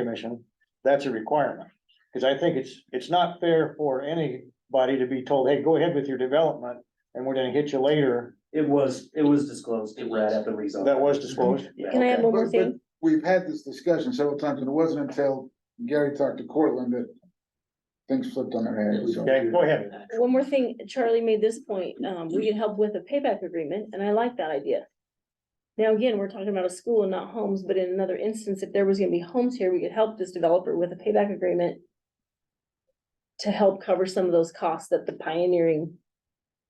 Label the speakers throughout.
Speaker 1: commission, that's a requirement. Cause I think it's, it's not fair for anybody to be told, hey, go ahead with your development and we're gonna hit you later.
Speaker 2: It was, it was disclosed, it read at the rezon.
Speaker 1: That was disclosed.
Speaker 3: Can I
Speaker 2: Yeah,
Speaker 3: have one more
Speaker 4: But- but
Speaker 3: thing?
Speaker 4: We've had this discussion several times, and it wasn't until Gary talked to Cortland that things flipped on their head, so.
Speaker 1: Okay, go ahead.
Speaker 3: One more thing, Charlie made this point, um, we can help with a payback agreement, and I like that idea. Now, again, we're talking about a school and not homes, but in another instance, if there was gonna be homes here, we could help this developer with a payback agreement. To help cover some of those costs that the pioneering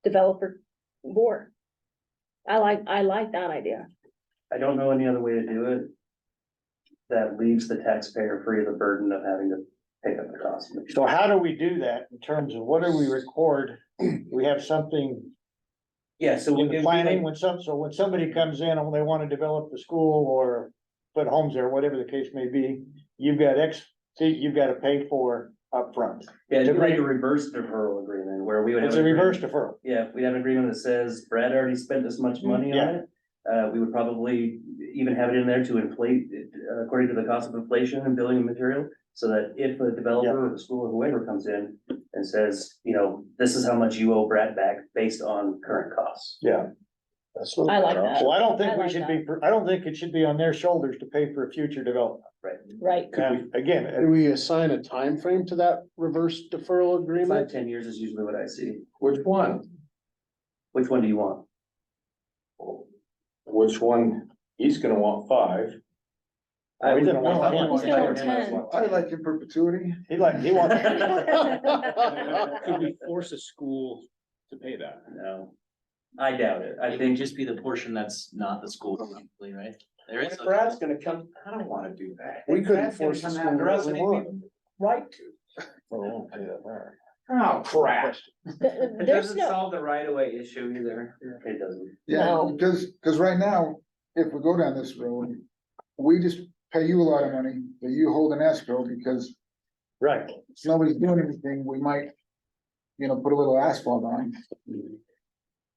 Speaker 3: developer bore. I like, I like that idea.
Speaker 2: I don't know any other way to do it. That leaves the taxpayer free of the burden of having to pick up the cost.
Speaker 1: So how do we do that in terms of what do we record? We have something
Speaker 2: Yeah, so.
Speaker 1: in
Speaker 2: it would
Speaker 1: the
Speaker 2: be
Speaker 1: planning
Speaker 2: like-
Speaker 1: when some, so when somebody comes in and they wanna develop the school or put homes there, whatever the case may be, you've got X, fee you've gotta pay for upfront.
Speaker 2: Yeah, it'd be like a reverse deferral agreement where we would have.
Speaker 1: It's
Speaker 2: an
Speaker 1: a reverse
Speaker 2: agreement-
Speaker 1: deferral.
Speaker 2: Yeah, if we have an agreement that says Brad already spent this much money on
Speaker 1: Yeah.
Speaker 2: it. Uh, we would probably even have it in there to inflate, it, uh, according to the cost of inflation and building and material. So that if a developer or the school or whoever comes in and says, you know, this is how much you owe Brad back based on current costs.
Speaker 1: Yeah.
Speaker 3: I like that,
Speaker 1: So I don't
Speaker 3: I
Speaker 1: think we
Speaker 3: like
Speaker 1: should
Speaker 3: that.
Speaker 1: be, I don't think it should be on their shoulders to pay for future development.
Speaker 3: right?
Speaker 1: And again,
Speaker 5: Do we assign a time frame to that reverse deferral
Speaker 2: Five,
Speaker 5: agreement?
Speaker 2: ten years is usually what I see.
Speaker 6: Which one?
Speaker 2: Which one do you want?
Speaker 6: Which one? He's gonna want five.
Speaker 1: I would- didn't want
Speaker 2: I would-
Speaker 3: ten.
Speaker 2: I would-
Speaker 3: Still want
Speaker 4: I like in perpetuity.
Speaker 1: he like, he wants,
Speaker 5: Could we force a school to pay that?
Speaker 2: No. I doubt it. I
Speaker 7: It would
Speaker 2: think
Speaker 7: just be the portion that's not the school probably, right? There is. a-
Speaker 6: Brad's gonna come, I don't wanna do that.
Speaker 5: We
Speaker 6: Brad's
Speaker 5: couldn't
Speaker 6: gonna
Speaker 5: force the
Speaker 6: come
Speaker 5: school
Speaker 6: after
Speaker 5: to
Speaker 6: us
Speaker 5: do
Speaker 6: and
Speaker 5: what?
Speaker 6: he'd be Right to.
Speaker 5: Oh, pay that back.
Speaker 6: Oh, crap.
Speaker 3: Th- There's no,
Speaker 2: solve the right of way issue either. It doesn't.
Speaker 4: Yeah,
Speaker 3: No.
Speaker 4: because, because right now, if we go down this road, we just pay you a lot of money that you hold in escrow because
Speaker 1: right,
Speaker 4: if nobody's doing anything, we might, you know, put a little asphalt on.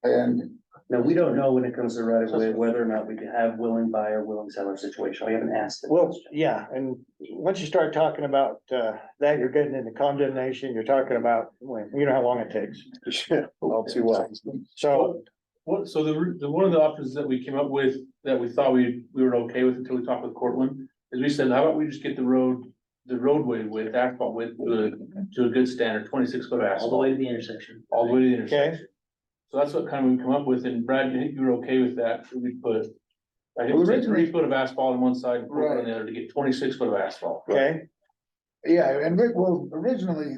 Speaker 4: And
Speaker 2: No, we don't know when it comes to right of way, whether or not we can have willing buyer, willing seller situation. We haven't asked. the
Speaker 1: well,
Speaker 2: question.
Speaker 1: yeah, and once you start talking about, uh, that, you're getting into condemnation, you're talking about, well, you know how long it takes.
Speaker 5: All too well.
Speaker 1: So,
Speaker 8: What, so the, re- the, one of the options that we came up with, that we thought we, we were okay with until we talked with Cortland, is we said, how about we just get the road, the roadway width, asphalt width, to a, to a good standard, twenty-six foot
Speaker 7: All the way
Speaker 8: asphalt,
Speaker 7: to the intersection.
Speaker 8: all the way to the intersection.
Speaker 1: okay,
Speaker 8: So that's what kind of we come up with, and Brad, I think you were okay with that, so we put, I think
Speaker 4: Well,
Speaker 8: we said
Speaker 4: originally-
Speaker 8: three foot of asphalt on one side and four foot on
Speaker 4: Right.
Speaker 8: the other to get twenty-six foot of asphalt.
Speaker 1: okay,
Speaker 4: Yeah, and Rick, well, originally,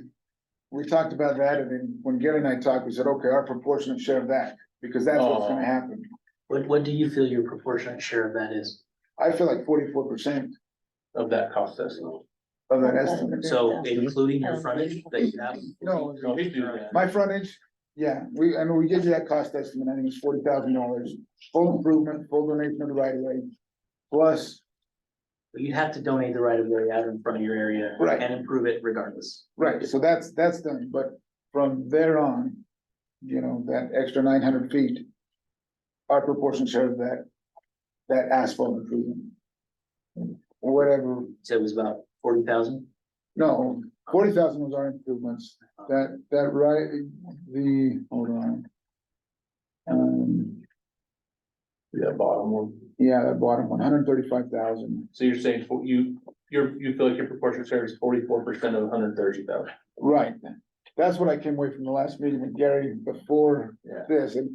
Speaker 4: we talked about that, and then when Gary and I talked, we said, okay, our proportionate share of that, because that's what's gonna happen.
Speaker 7: What, what do you feel your proportionate share of that is?
Speaker 4: I feel like forty-four percent
Speaker 8: Of that cost estimate.
Speaker 4: of that estimate.
Speaker 7: So including your frontage that you have?
Speaker 4: No,
Speaker 8: Don't do that.
Speaker 4: my frontage, yeah, we, I mean, we gave you that cost estimate, I think it's forty thousand dollars, full improvement, full donation of the right of way. Plus,
Speaker 7: But you'd have to donate the right of way out in front of your area.
Speaker 4: Right.
Speaker 7: And improve it regardless.
Speaker 4: right, so that's, that's done, but from there on, you know, that extra nine hundred feet. Our proportionate share of that, that asphalt improvement. Whatever
Speaker 7: So it was about forty thousand?
Speaker 4: No, forty thousand was our improvements, that, that right, the, hold on. Um,
Speaker 8: That bottom one.
Speaker 4: yeah, that bottom one, hundred thirty-five thousand,
Speaker 8: So you're saying, for- you, you're, you feel like your proportionate share is forty-four percent of hundred thirty thousand.
Speaker 4: right, that's what I came away from the last meeting with Gary before
Speaker 8: Yeah.
Speaker 4: this, and,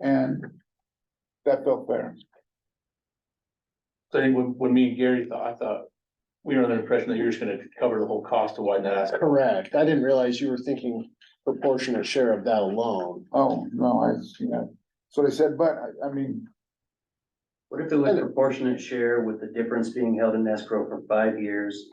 Speaker 4: and that felt fair.
Speaker 8: So I think when, when me and Gary thought, I thought, we were under the impression that you're just gonna cover the whole cost to widen that asphalt.
Speaker 5: Correct. I didn't realize you were thinking proportionate share of that alone.
Speaker 4: Oh, no, I, yeah, so they said, but, I, I mean,
Speaker 2: What if it was proportionate share with the difference being held in escrow for five years?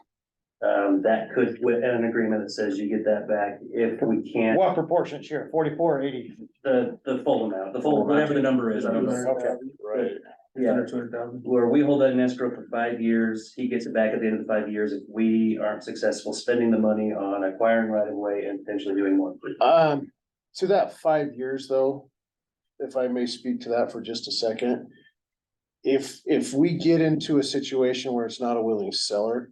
Speaker 2: Um, that could, with an agreement that says you get that back if we can't,
Speaker 1: what proportion share, forty-four, eighty?
Speaker 2: the, the full amount, the full, whatever the number is, I don't know.
Speaker 1: Okay,
Speaker 8: Right.
Speaker 2: Yeah,
Speaker 8: two hundred thousand.
Speaker 2: where we hold that in escrow for five years, he gets it back at the end of the five years if we aren't successful spending the money on acquiring right of way and potentially doing more.
Speaker 5: Um, to that five years though, if I may speak to that for just a second. If, if we get into a situation where it's not a willing seller,